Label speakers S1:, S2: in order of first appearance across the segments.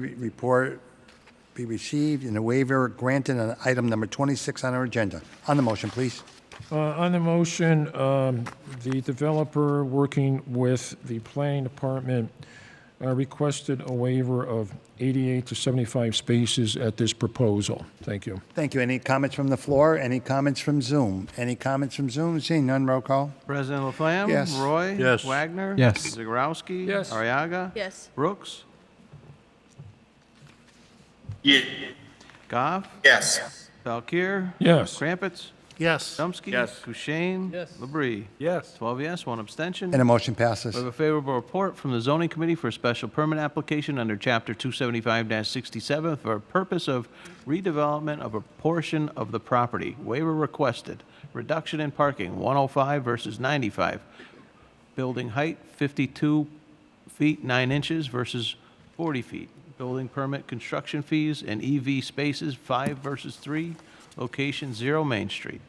S1: Re- Report be received and a waiver granted on item number 26 on our agenda. On the motion, please.
S2: Uh, On the motion, um, the developer, working with the planning department, uh, requested a waiver of 88 to 75 spaces at this proposal. Thank you.
S1: Thank you. Any comments from the floor? Any comments from Zoom? Any comments from Zoom? Seeing none, roll call.
S3: President Laflamme?
S1: Yes.
S3: Roy?
S4: Yes.
S3: Wagner?
S5: Yes.
S3: Zegarowski?
S2: Yes.
S3: Ariaga?
S6: Yes.
S3: Brooks?
S7: Ye-
S3: Goff?
S7: Yes.
S3: Valkir?
S2: Yes.
S3: Krampets?
S4: Yes.
S3: Chomsky?
S7: Yes.
S3: Kushein? Yes. Labrie?
S4: Yes.
S3: Twelve yes, one abstention.
S1: And a motion passes.
S3: We have a favorable report from the zoning committee for a special permit application under Chapter 275-67 for a purpose of redevelopment of a portion of the property. Waiver requested. Reduction in parking, 105 versus 95. Building height, 52 feet 9 inches versus 40 feet. Building permit, construction fees, and EV spaces, 5 versus 3. Location, 0 Main Street.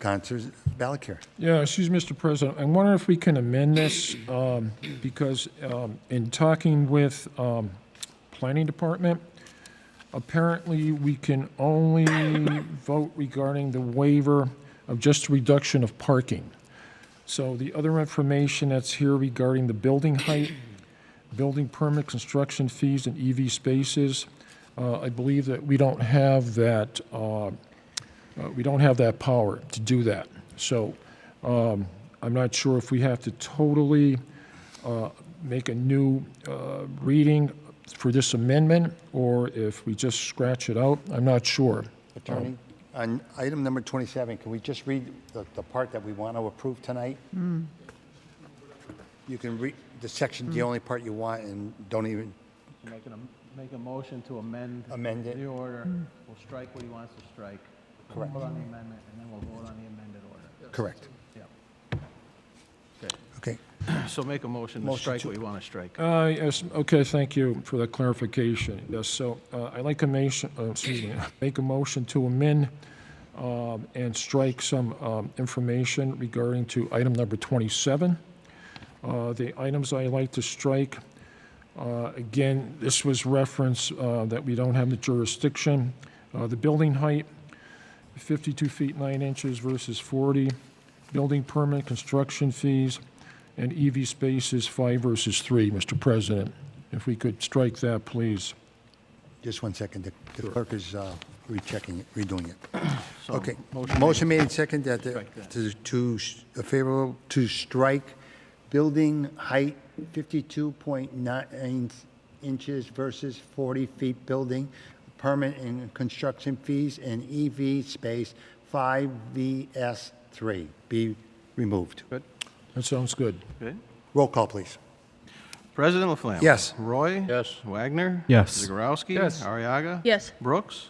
S1: Counselor Balakir.
S2: Yeah, excuse me, Mr. President. I wonder if we can amend this, um, because um, in talking with um, Planning Department, apparently we can only vote regarding the waiver of just reduction of parking. So the other information that's here regarding the building height, building permit, construction fees, and EV spaces, uh, I believe that we don't have that uh, uh, We don't have that power to do that. So um, I'm not sure if we have to totally uh, make a new uh, reading for this amendment, or if we just scratch it out. I'm not sure.
S1: Attorney, on item number 27, can we just read the, the part that we want to approve tonight? You can read the section, the only part you want, and don't even,
S3: Make a, make a motion to amend.
S1: Amend it.
S3: The order. We'll strike what he wants to strike.
S1: Correct.
S3: Vote on the amendment, and then we'll vote on the amended order.
S1: correct. Okay.
S3: So make a motion to
S1: Motion
S3: strike
S1: to-
S3: what you want to strike.
S2: Uh, Yes, okay, thank you for that clarification. Yes, so uh, I'd like to make, excuse me, make a motion to amend um, and strike some um, information regarding to item number 27. Uh, The items I like to strike, uh, again, this was reference uh, that we don't have the jurisdiction. Uh, The building height, 52 feet 9 inches versus 40. Building permit, construction fees, and EV spaces, 5 versus 3, Mr. President. If we could strike that, please.
S1: Just one second. The- The clerk is uh, rechecking, it, redoing it.
S3: So
S1: Okay.
S3: Oh, motion
S1: Motion made second that the,
S3: Strike that.
S1: to, to s- a favorable, to strike building height 52.9 inches versus 40 feet building, permit and construction fees, and EV space 5VS3 be removed.
S3: Good,
S2: That sounds good.
S3: good.
S1: Roll call, please.
S3: President Laflamme?
S1: Yes.
S3: Roy?
S4: Yes.
S3: Wagner?
S5: Yes.
S3: Zegarowski?
S2: Yes.
S3: Ariaga?
S6: Yes.
S3: Brooks?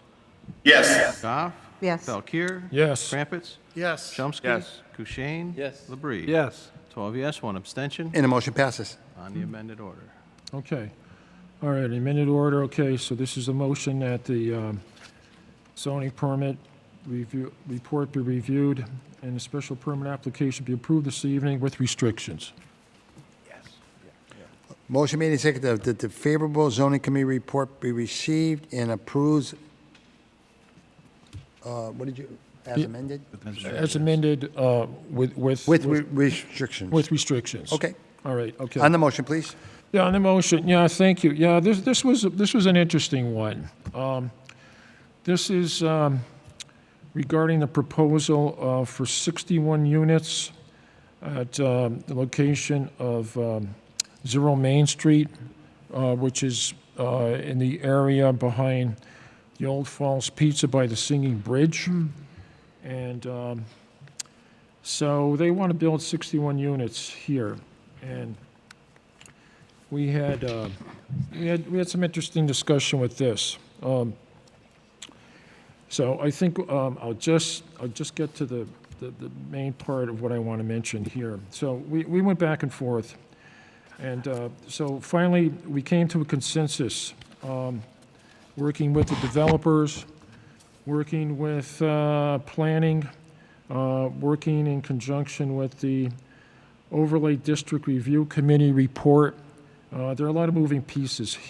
S7: Yes.
S3: Goff?
S6: Yes.
S3: Valkir?
S2: Yes.
S3: Crumpets?
S4: Yes.
S3: Chomsky?
S7: Yes.
S3: Kushein?
S4: Yes.
S3: Labrie?
S4: Yes.
S3: Twelve yes, one abstention
S1: And the motion passes.
S3: on the amended order.
S2: Okay. All right, in minute order, okay, so this is a motion that the um, zoning permit review, report be reviewed, and a special permit application be approved this evening with restrictions.
S1: Motion made and seconded that the favorable zoning committee report be received and approves, uh, what did you, as amended?
S2: As amended uh, with, with,
S1: With re- restrictions.
S2: with restrictions.
S1: Okay.
S2: All right, okay.
S1: On the motion, please.
S2: Yeah, on the motion, yeah, thank you. Yeah, this, this was, this was an interesting one. Um, This is um, regarding the proposal uh, for 61 units at um, the location of um, Zero Main Street, uh, which is uh, in the area behind the Old Falls Pizza by the Singing Bridge. And um, so they want to build 61 units here. And we had, uh, we had, we had some interesting discussion with this. Um, So I think um, I'll just, I'll just get to the, the, the main part of what I want to mention here. So we, we went back and forth, and uh, so finally, we came to a consensus, um, working with the developers, working with uh, planning, uh, working in conjunction with the overlay district review committee report, uh, There are a lot of moving pieces here.